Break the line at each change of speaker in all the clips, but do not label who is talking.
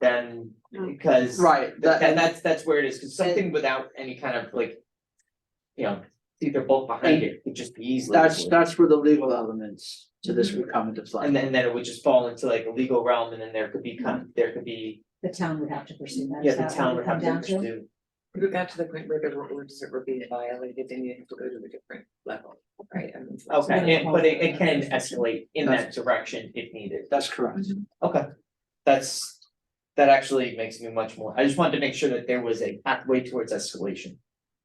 then,
Hmm.
because.
Right, that,
And that's, that's where it is, cause something without any kind of like. You know, see their bulk behind it, would just be easily.
that's, that's where the legal elements to this would come into play.
And then, then it would just fall into like a legal realm and then there could
Hmm.
be kind, there could be,
The town would have to pursue that.
yeah,
Is
the
that what
town
it
would have
come
to
down to?
pursue.
If it got to the point where there were orders that were being violated, then you have to go to a different level, right? I mean, so-
then
Okay,
it
and- but it, it
falls
can
under that.
escalate in that direction if needed.
That's correct.
Okay, that's, that actually makes me much more, I just wanted to make sure that there was a pathway towards escalation.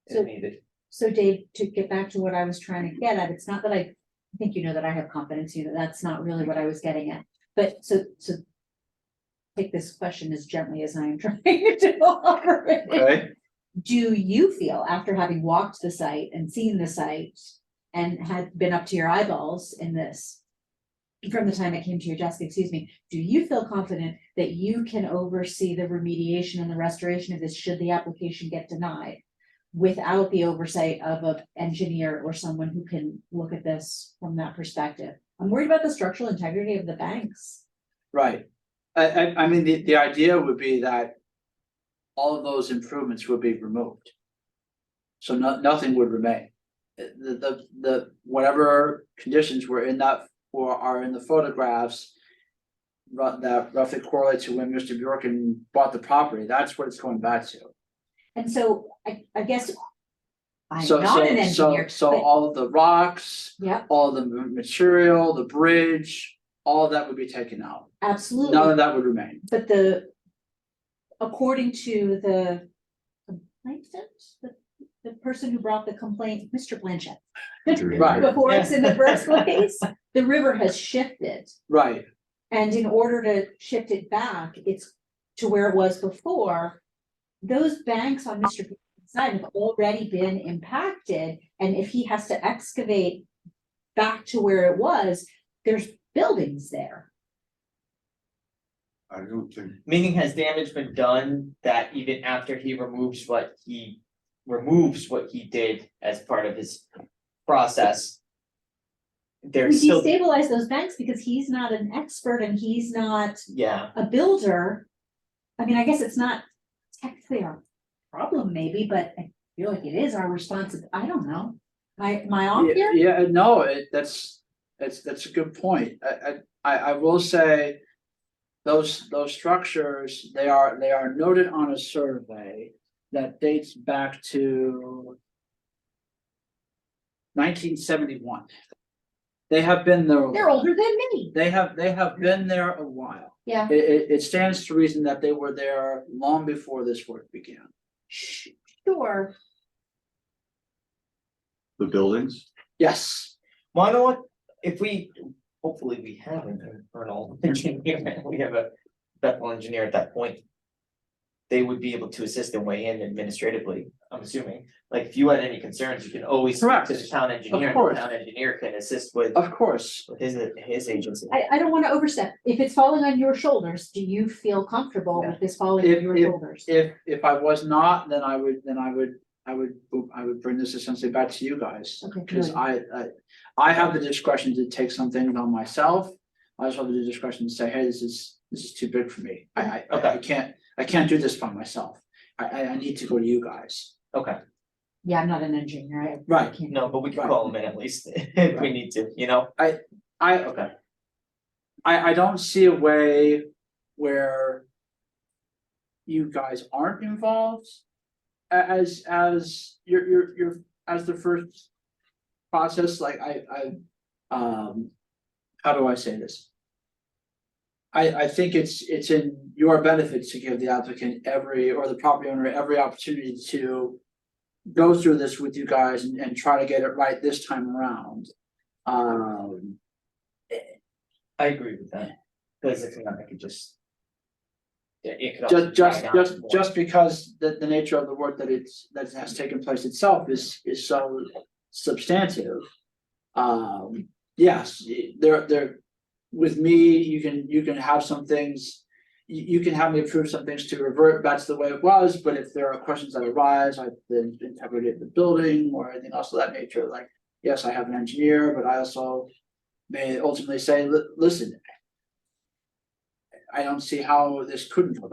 So-
If needed,
So Dave, to get back to what I was trying to get at, it's not that I, I think you know that I have confidence, you know, that's not really what I was getting at, but so, so. Take this question as gently as I am trying to offer it.
okay?
Do you feel after having walked the site and seen the site and had been up to your eyeballs in this? From the time it came to your desk, excuse me, do you feel confident that you can oversee the remediation and the restoration of this should the application get denied? Without the oversight of an engineer or someone who can look at this from that perspective? I'm worried about the structural integrity of the banks.
Right. I, I, I mean, the, the idea would be that all of those improvements would be removed. So no, nothing would remain. The, the, the, whatever conditions were in that, or are in the photographs ru- that roughly correlate to when Mr. Bjorken bought the property, that's what it's going back to.
And so I, I guess I'm
So,
not an
so, so,
engineer,
so
but
all of the rocks,
yeah,
all the ma- material, the bridge, all of that would be taken out.
absolutely.
None of that would remain.
But the, according to the complainant, the, the person who brought the complaint, Mr. Blanchett.
Right.
Before it's in the first place, the river has shifted.
Right,
And in order to shift it back, it's to where it was before. Those banks on Mr. Peterson's side have already been impacted, and if he has to excavate back to where it was, there's buildings there.
I don't think,
Meaning has damage been done that even after he removes what he, removes what he did as part of his process.
We
There's still,
destabilize those banks because he's not an expert and he's not
yeah,
a builder. I mean, I guess it's not technically our problem maybe, but I feel like it is our responsibility. I don't know. Am I, am I off
Yeah,
here?
yeah, no, it, that's, that's, that's a good point, I, I, I, I will say. Those, those structures, they are, they are noted on a survey that dates back to. Nineteen seventy-one. They have been there.
They're older than me.
They have, they have been there a while,
Yeah.
it, it, it stands to reason that they were there long before this work began.
Sure,
the buildings,
Yes,
well, I know what, if we, hopefully we have an internal engineer, we have a Bethel engineer at that point. They would be able to assist and weigh in administratively, I'm assuming, like if you had any concerns, you can always speak to the
Correct.
town engineer, and
course.
the town engineer can assist with
of course,
with his his agency.
I, I don't wanna overstep. If it's falling on your shoulders, do you feel comfortable with this falling
If-
on your
if-
shoulders?
If, if I was not, then I would, then I would, I would, I would bring this essentially back to you guys.
Okay,
Cause
good.
I, I, I have the discretion to take something on myself. I also have the discretion to say, hey, this is, this is too big for me. I, I- I, I
Okay.
can't, I can't do this by myself. I, I, I need to go to you guys.
Okay,
Yeah, I'm not an engineer. I- I
Right.
can't-
no, but we can
Right.
call him in at least if we need to, you know?
I,
Okay,
I, I don't see a way where you guys aren't involved a- as, as, you're, you're, you're, as the first process, like I, I, um, how do I say this? I, I think it's, it's in your benefit to give the applicant every, or the property owner, every opportunity to go through this with you guys and, and try to get it right this time around. Um,
I agree with that, because if not, I could just. Yeah, it could. also
Just, just,
drag on
just,
more.
just because the, the nature of the work that it's, that has taken place itself is, is so substantive. Um, yes, there, there, with me, you can, you can have some things. You, you can have me approve some things to revert back to the way it was, but if there are questions that arise, like the integrity of the building or anything else of that nature, like. Yes, I have an engineer, but I also may ultimately say, "Li- listen. I don't see how this couldn't go